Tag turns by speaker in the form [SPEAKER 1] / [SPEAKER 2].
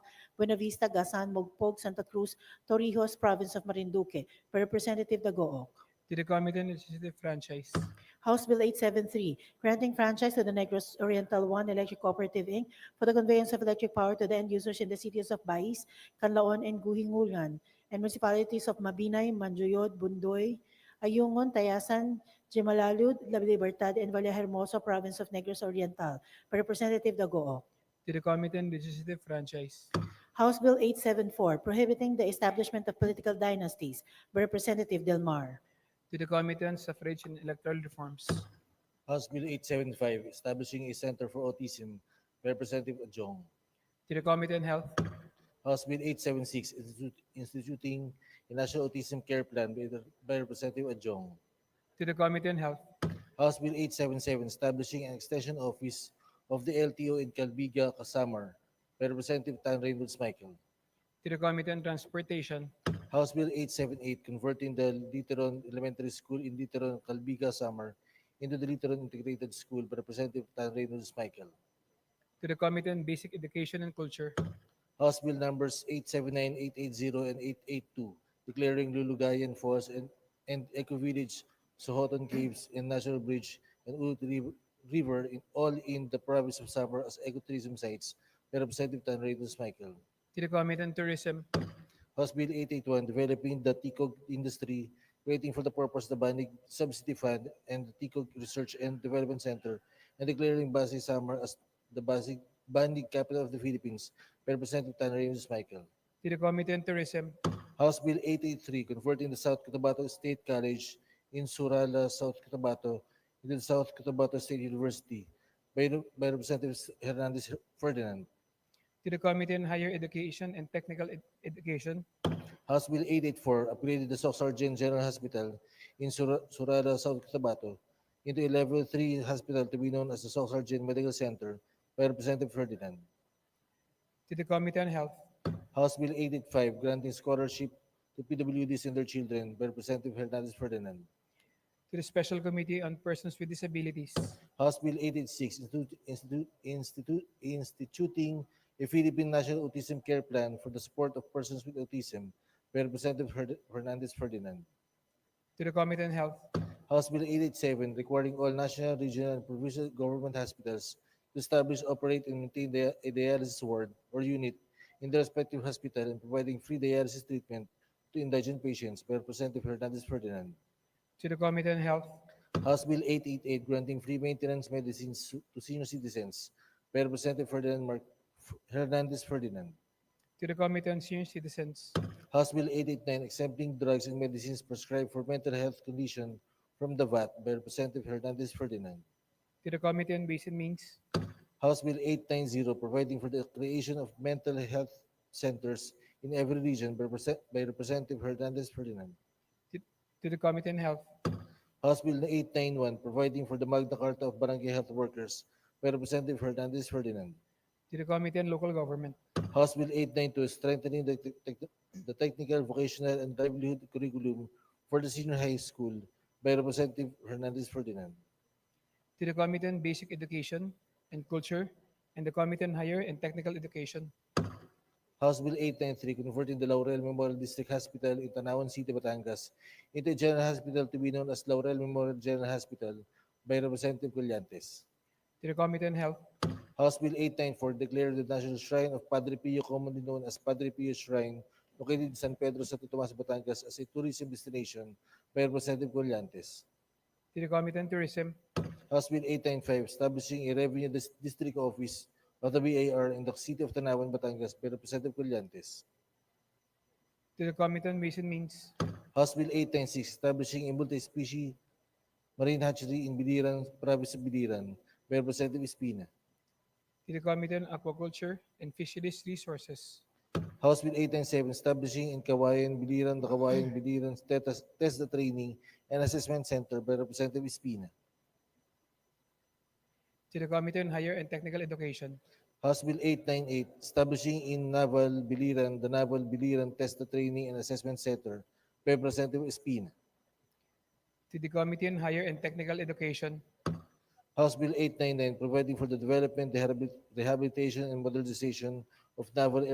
[SPEAKER 1] Buena Vista, Gasan, Mogpog, Santa Cruz, Torrijos, Province of Marinduque, by Representative Dagoong.
[SPEAKER 2] to the Committee on Legislative Franchise,
[SPEAKER 1] House Bill 873, granting franchise to the Negros Oriental One Electric Cooperative, Inc. for the conveyance of electric power to the end users in the cities of Bais, Canlaon, and Guhingulgan, and municipalities of Mabinay, Manjoyod, Bundoy, Ayungon, Tayasan, Jimalalud, La Libertad, and Vallehermoso, Province of Negros Oriental, by Representative Dagoong.
[SPEAKER 2] to the Committee on Legislative Franchise,
[SPEAKER 1] House Bill 874, prohibiting the establishment of political dynasties, by Representative Del Mar.
[SPEAKER 2] to the Committee on Suffrage and Electoral Reforms,
[SPEAKER 3] House Bill 875, establishing a center for autism, Representative Jong.
[SPEAKER 2] to the Committee on Health,
[SPEAKER 3] House Bill 876, institu- instituting a national autism care plan by the- by Representative Jong.
[SPEAKER 2] to the Committee on Health,
[SPEAKER 3] House Bill 877, establishing an extension office of the LTO in Calbiga, Casamar, by Representative Tan Reynolds Michael.
[SPEAKER 2] to the Committee on Transportation,
[SPEAKER 3] House Bill 878, converting the Literon Elementary School in Literon, Calbiga, Samar into the Literon Integrated School by Representative Tan Reynolds Michael.
[SPEAKER 2] to the Committee on Basic Education and Culture,
[SPEAKER 3] House Bill numbers 879, 880, and 882, declaring Lulugayan Falls and, and Eco Village, Sohotan Caves, and National Bridge and Urut Riv- River, in, all in the province of Samar as ecotourism sites by Representative Tan Reynolds Michael.
[SPEAKER 2] to the Committee on Tourism,
[SPEAKER 3] House Bill 881, developing the TICOG industry, waiting for the purpose of the Banig Subsidy Fund and the TICOG Research and Development Center, and declaring Basi Samar as the Basi, Banig capital of the Philippines, by Representative Tan Reynolds Michael.
[SPEAKER 2] to the Committee on Tourism,
[SPEAKER 3] House Bill 883, converting the South Cotabato State College in Surala, South Cotabato, into the South Cotabato State University, by Rep- by Representative Hernandez Ferdinand.
[SPEAKER 2] to the Committee on Higher Education and Technical Ed- Education,
[SPEAKER 3] House Bill 884 upgraded the Soc Sargent General Hospital in Sur- Surada, South Cotabato into a Level 3 hospital to be known as the Soc Sargent Medical Center by Representative Ferdinand.
[SPEAKER 2] to the Committee on Health,
[SPEAKER 3] House Bill 885 granting scholarship to PWDs and their children by Representative Hernandez Ferdinand.
[SPEAKER 2] to the Special Committee on Persons with Disabilities,
[SPEAKER 3] House Bill 886 institu- institu- institu- instituting a Philippine National Autism Care Plan for the support of persons with autism by Representative Herd- Hernandez Ferdinand.
[SPEAKER 2] to the Committee on Health,
[SPEAKER 3] House Bill 887 requiring all national, regional, and provincial government hospitals to establish, operate, and maintain dia- a dialysis ward or unit in their respective hospital and providing free dialysis treatment to indigent patients by Representative Hernandez Ferdinand.
[SPEAKER 2] to the Committee on Health,
[SPEAKER 3] House Bill 888 granting free maintenance medicines to- to senior citizens by Representative Ferdinand Mar- Hernandez Ferdinand.
[SPEAKER 2] to the Committee on Senior Citizens,
[SPEAKER 3] House Bill 889 exempting drugs and medicines prescribed for mental health condition from the VAT by Representative Hernandez Ferdinand.
[SPEAKER 2] to the Committee on Basic Means,
[SPEAKER 3] House Bill 890 providing for the creation of mental health centers in every region by Represent- by Representative Hernandez Ferdinand.
[SPEAKER 2] to the Committee on Health,
[SPEAKER 3] House Bill 891 providing for the Magna Carta of Barangay Health Workers by Representative Hernandez Ferdinand.
[SPEAKER 2] to the Committee on Local Government,
[SPEAKER 3] House Bill 892, strengthening the, tec- tec- the technical, vocational, and livelihood curriculum for the senior high school by Representative Hernandez Ferdinand.
[SPEAKER 2] to the Committee on Basic Education and Culture, and the Committee on Higher and Technical Education,
[SPEAKER 3] House Bill 893, converting the Laurel Memorial District Hospital in Tanawan City, Batangas into a general hospital to be known as Laurel Memorial General Hospital by Representative Colyantes.
[SPEAKER 2] to the Committee on Health,
[SPEAKER 3] House Bill 894, declared the National Shrine of Padre Pio, commonly known as Padre Pio Shrine, located in San Pedro, Santo Tomas, Batangas as a tourism destination by Representative Colyantes.
[SPEAKER 2] to the Committee on Tourism,
[SPEAKER 3] House Bill 895, establishing a revenue dis- district office of the BAR in the city of Tanawan, Batangas by Representative Colyantes.
[SPEAKER 2] to the Committee on Basic Means,
[SPEAKER 3] House Bill 896, establishing a multi-species marine hatchery in Biliran, province of Biliran by Representative Espina.
[SPEAKER 2] to the Committee on Aquaculture and Fisheries Resources,
[SPEAKER 3] House Bill 897, establishing in Kawayan, Biliran, the Kawayan, Biliran Tetas- Test the Training and Assessment Center by Representative Espina.
[SPEAKER 2] to the Committee on Higher and Technical Education,
[SPEAKER 3] House Bill 898, establishing in Naval, Biliran, the Naval, Biliran Test the Training and Assessment Center by Representative Espina.
[SPEAKER 2] to the Committee on Higher and Technical Education,
[SPEAKER 3] House Bill 899, providing for the development, rehabil- rehabilitation, and modernization of naval